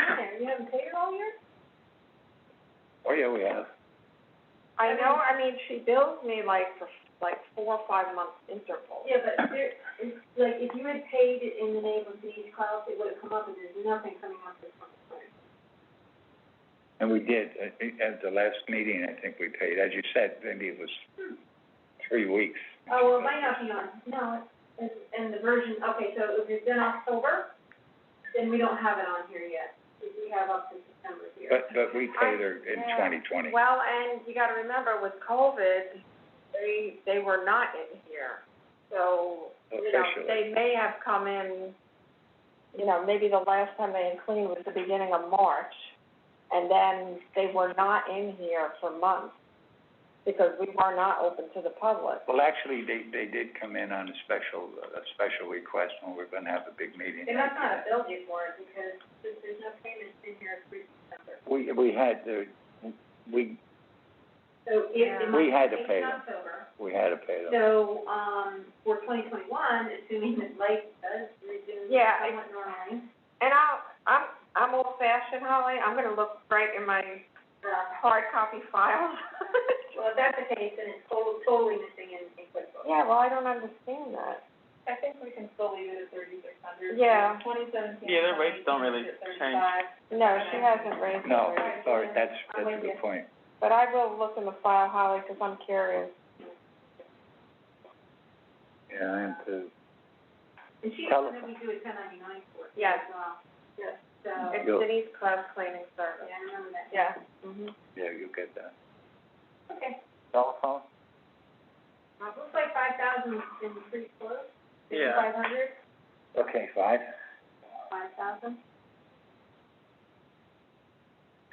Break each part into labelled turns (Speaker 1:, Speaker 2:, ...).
Speaker 1: haven't paid her all year?
Speaker 2: Oh, yeah, we have.
Speaker 1: I
Speaker 3: I
Speaker 1: know,
Speaker 3: mean-
Speaker 1: I mean, she bills me like for, like, four or five month intervals.
Speaker 3: Yeah, but there, it's, like, if you had paid it in the name of these clouds, it would've come up, and there's nothing coming up this month.
Speaker 2: And we did, at, at the last meeting, I think we paid, as you said, maybe it was three weeks.
Speaker 3: Oh, well, it might not be on, no, it's, and the version, okay, so if it's in October, then we don't have it on here yet, because we have up to September here.
Speaker 2: But, but we paid her in
Speaker 1: Yeah.
Speaker 2: twenty twenty.
Speaker 1: Well, and you gotta remember with COVID, they, they were not in here. So, you know,
Speaker 2: Officially.
Speaker 1: they may have come in, you know, maybe the last time they had cleaned was the beginning of March. And then they were not in here for months because we were not open to the public.
Speaker 2: Well, actually, they, they did come in on a special, a special request when we're gonna have a big meeting.
Speaker 3: They must not have billed you for it, because there's, there's no payment in here for September,
Speaker 2: We, we had, the we,
Speaker 3: so if the
Speaker 1: Yeah.
Speaker 3: money
Speaker 2: We had to
Speaker 3: is in
Speaker 2: pay them.
Speaker 3: October,
Speaker 2: we had to pay them.
Speaker 3: So, um, for twenty twenty-one, assuming that life does resume
Speaker 1: Yeah, I-
Speaker 3: somewhat normally,
Speaker 1: And I'll, I'm, I'm old fashioned, Holly. I'm gonna look right in my
Speaker 3: uh,
Speaker 1: hard copy file.
Speaker 3: well, if that's the case, then it's totally, totally missing in, in QuickBooks.
Speaker 1: Yeah, well, I don't understand that.
Speaker 3: I think we can still leave it at thirty-six hundred.
Speaker 1: Yeah.
Speaker 3: Twenty seventeen.
Speaker 4: Yeah, their rates don't really change.
Speaker 1: No, she hasn't raised it.
Speaker 2: No,
Speaker 1: right?
Speaker 2: sorry, that's,
Speaker 3: I'm
Speaker 2: that's a
Speaker 3: with you.
Speaker 2: good point.
Speaker 1: But I will look in the file, Holly, 'cause I'm curious.
Speaker 2: Yeah, I am too.
Speaker 3: And she
Speaker 2: Tell
Speaker 3: doesn't we
Speaker 2: us.
Speaker 3: do a ten ninety-nine for it
Speaker 1: Yes.
Speaker 3: as well. Yes. So,
Speaker 1: It's
Speaker 2: Go.
Speaker 1: Denise Cloud Cleaning Service.
Speaker 3: uh, yeah, I remember that.
Speaker 1: Yeah. Mhm.
Speaker 2: Yeah, you get that.
Speaker 3: Okay,
Speaker 2: Telephone?
Speaker 3: uh, looks like five thousand is pretty close.
Speaker 4: Yeah.
Speaker 3: Five hundred,
Speaker 2: Okay, five.
Speaker 3: five thousand.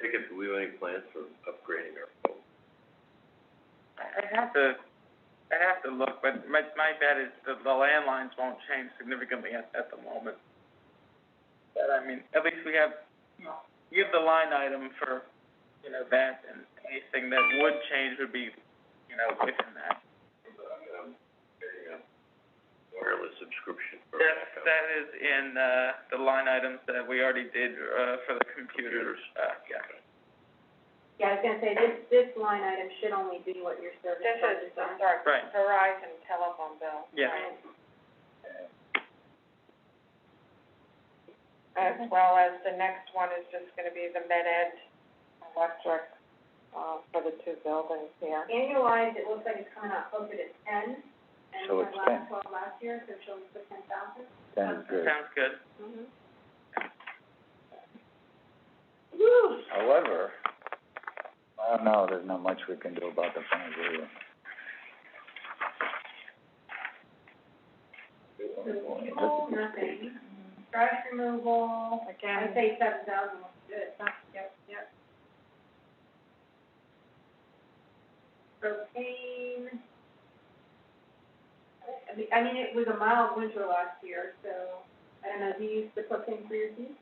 Speaker 2: Jacob, do we have any plans for upgrading our phone?
Speaker 4: I- I'd have to, I'd have to look, but my, my bet is that the landlines won't change significantly at, at the moment. But I mean, at least we have, you have the line item for, you know, that, and anything that would change would be, you know, within that.
Speaker 2: Wireless subscription
Speaker 4: That's, that is in, uh, the line items that we already did, uh, for the computers, uh, yeah.
Speaker 3: Yeah, I was gonna say, this, this line item should only be what your service
Speaker 1: This
Speaker 3: charges
Speaker 1: is,
Speaker 3: are.
Speaker 1: I'm sorry,
Speaker 4: Right.
Speaker 1: Verizon telephone bill. Um,
Speaker 4: Yeah.
Speaker 1: As well as the next one is just gonna be the med ed electric, uh, for the two buildings here.
Speaker 3: Annualized, it looks like it's coming out closer to ten, and
Speaker 2: So
Speaker 3: we
Speaker 2: it's
Speaker 3: had last
Speaker 2: 10.
Speaker 3: twelve last year, so she'll put ten thousand. Mm-hmm.
Speaker 2: Sounds good.
Speaker 4: Sounds good.
Speaker 1: Mhm.
Speaker 3: Woo!
Speaker 2: However, I don't know, there's not much we can do about the phones either.
Speaker 3: Fuel, oh, nothing, trash removal, I'd
Speaker 1: Again,
Speaker 3: say seven thousand looks good, yep, yep. Propane. I mean, I mean, it was a mild winter last year, so, I don't know, do you use the propane for your heat?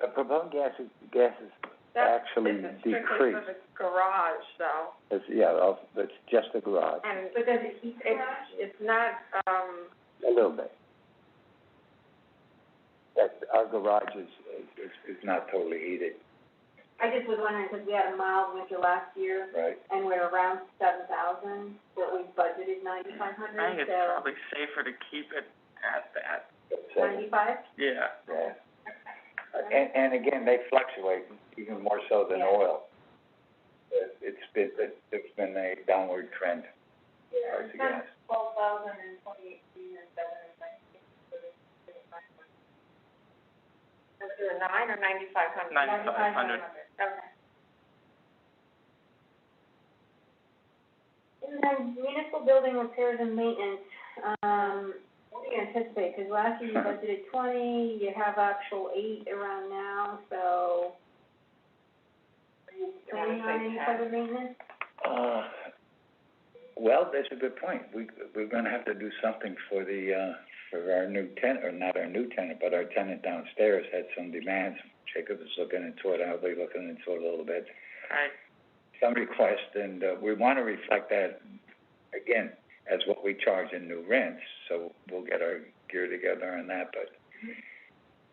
Speaker 2: The propane gas is, gas is
Speaker 1: that's,
Speaker 2: actually
Speaker 1: this is strictly for
Speaker 2: decreased.
Speaker 1: the garage though,
Speaker 2: It's, yeah, I'll- it's just the garage,
Speaker 1: and
Speaker 3: But does it heat the
Speaker 1: it's,
Speaker 3: garage?
Speaker 1: it's not, um,
Speaker 2: a little bit. That, our garage is, is, is not totally heated,
Speaker 3: I just was wondering, because we had a mild winter last year,
Speaker 2: right?
Speaker 3: and we're around seven thousand, but we budgeted
Speaker 4: I
Speaker 3: ninety-five
Speaker 4: think it's
Speaker 3: hundred, so
Speaker 4: probably safer to keep it at that,
Speaker 2: So,
Speaker 3: ninety-five?
Speaker 4: yeah.
Speaker 2: yeah. And, and again, they fluctuate even more so than oil. It- It's been, it- it's been a downward trend, as far as the gas.
Speaker 3: twelve thousand and twenty-eighteen and seven and nineteen, so it's thirty-five hundred.
Speaker 1: is it a nine or ninety-five hundred?
Speaker 4: Nine. 9,500.
Speaker 3: um, Okay. And then municipal building repairs and maintenance, um, what do you anticipate? Because last year you budgeted twenty, you have actual eight around now, so. Are you
Speaker 1: I wanna
Speaker 3: planning
Speaker 1: say
Speaker 3: on any
Speaker 1: 10.
Speaker 3: further maintenance?
Speaker 2: Uh, well, that's a good point. We, we're gonna have to do something for the, uh, for our new tenant, or not our new tenant, but our tenant downstairs had some demands. Jacob is looking into it, I'll be looking into it a little bit.
Speaker 4: Right,
Speaker 2: Some requests, and, uh, we wanna reflect that, again, as what we charge in new rents, so we'll get our gear together on that, but